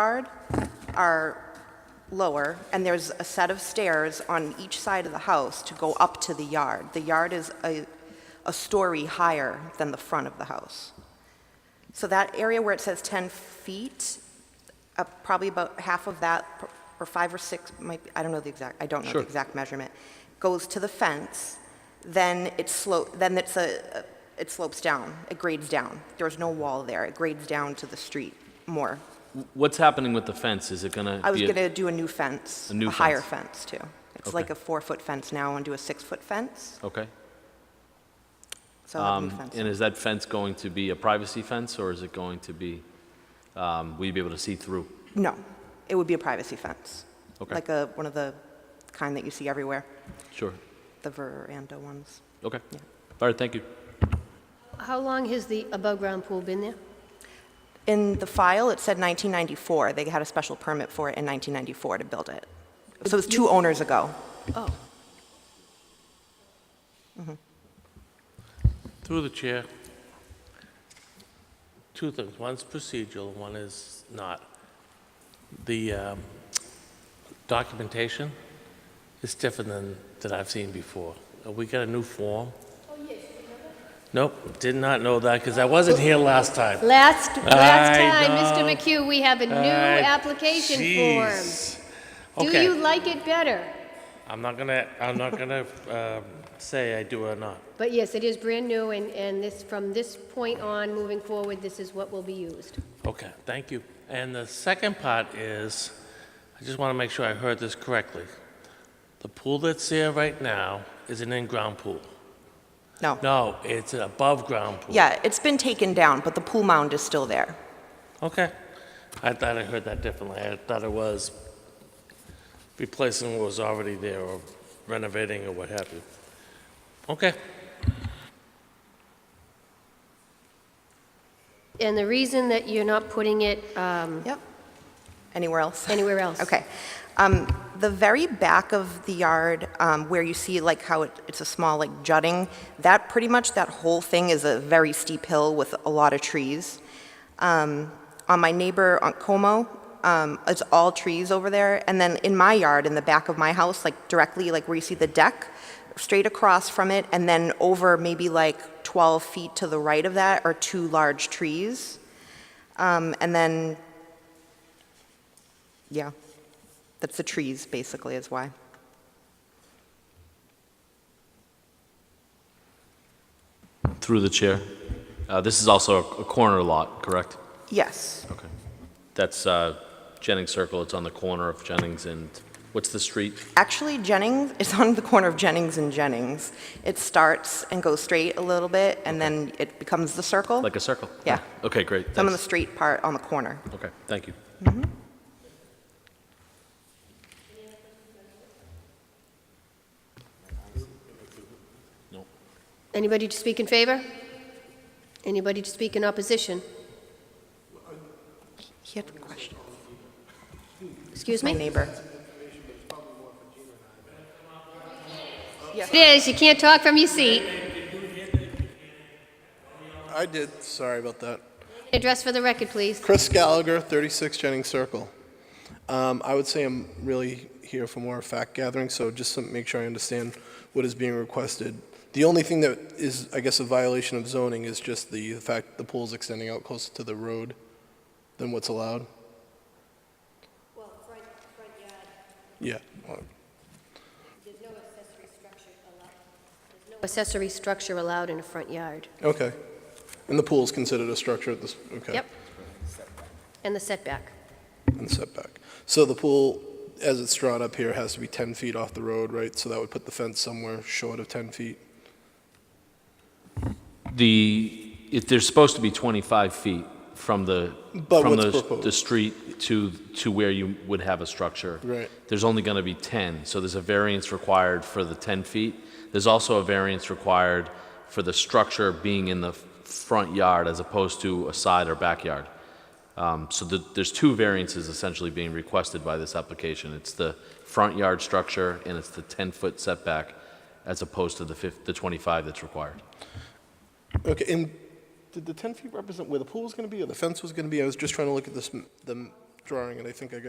yard are lower, and there's a set of stairs on each side of the house to go up to the yard. The yard is a, a story higher than the front of the house. So that area where it says 10 feet, uh, probably about half of that, or five or six, might, be- I don't know the exact, I don't know the Sure. exact measurement, goes to the fence, then it slope, then it's a, it slopes down, it grades down. There's no wall there, it grades down to the street more. What's happening with the fence? Is it gonna? I was be a- gonna do a new fence. A new higher fence. fence, too. It's Okay. like a four-foot fence now, and do a six-foot fence, Okay. so I'll have a new Um, fence. And is that fence going to be a privacy fence, or is it going to be, um, will you be able to see through? No, it would be a privacy fence. Okay. Like a, one of the kind that you see everywhere, Sure. the veranda ones. Okay. All right, thank you. How long has the above-ground pool been there? In the file, it said 1994. They had a special permit for it in 1994 to build it. So it was two owners ago. Oh, Through the chair. Two things, one's procedural, one is not. The um, documentation is different than, than I've seen before. Uh, We got a new form? Oh, yes. Nope, did not know that, because I wasn't here last time. last, last I time, Mr. know. McHugh, we have a new I- application form. Jeez. Do you Okay, like it better? I'm not gonna, I'm not gonna um, say I do or not. But yes, it is brand new, and, and this, from this point on, moving forward, this is what will be used. Okay, thank you. And the second part is, I just want to make sure I heard this correctly. The pool that's there right now is an in-ground pool. No. No, it's an above-ground pool. Yeah, it's been taken down, but the pool mound is still there. Okay. I thought I heard that differently. I thought it was replacing what was already there or renovating or what have you. Okay. And the reason that you're not putting it um, Yep. Anywhere else? anywhere else? Okay. Um, The very back of the yard, um, where you see like how it- it's a small like jutting, that, pretty much that whole thing is a very steep hill with a lot of trees. Um, On my neighbor, on Como, um, it's all trees over there. And then in my yard, in the back of my house, like directly, like where you see the deck, straight across from it, and then over maybe like 12 feet to the right of that are two large trees. Um, And then, yeah. That's the trees, basically, is why. Through the chair. Uh, This is also a a corner lot, correct? Yes. Okay. That's uh, Jennings Circle. It's on the corner of Jennings and, what's the street? Actually, Jennings, it's on the corner of Jennings and Jennings. It starts and goes straight a little bit, and then it becomes the circle. Like a circle? Oh. Yeah. Okay, great. Some of the Thanks. straight part on the corner. Okay, thank you. Anybody to speak in favor? Anybody to speak in opposition? He had a question. Excuse My me? neighbor. It is, you can't talk from your seat. I did. Sorry about that. Address for the record, please. Chris Gallagher, 36 Jennings Circle. Um, I would say I'm really here for more fact gathering, so just to make sure I understand what is being requested. The only thing that is, I guess, a violation of zoning is just the fact the pool's extending out closer to the road than what's allowed. Well, front, front yard, Yeah. well, there's no accessory structure allowed. Accessory structure allowed in a front yard. Okay. And the pool is considered a structure at this. Okay. Yep. And the setback. And setback. So the pool, as it's drawn up here, has to be 10 feet off the road, right? So that would put the fence somewhere short of 10 feet. The, if there's supposed to be 25 feet from the, But from what's the, proposed? the street to, to where you would have a structure. Right. There's only going to be 10, so there's a variance required for the 10 feet. There's also a variance required for the structure being in the front yard as opposed to a side or backyard. Um, So the- there's two variances essentially being requested by this application. It's the front yard structure and it's the 10-foot setback as opposed to the fif- the 25 that's required. Okay, and did the 10 feet represent where the pool was going to be or the fence was going to be? I was just trying to look at this, m- the m- drawing, and I think I got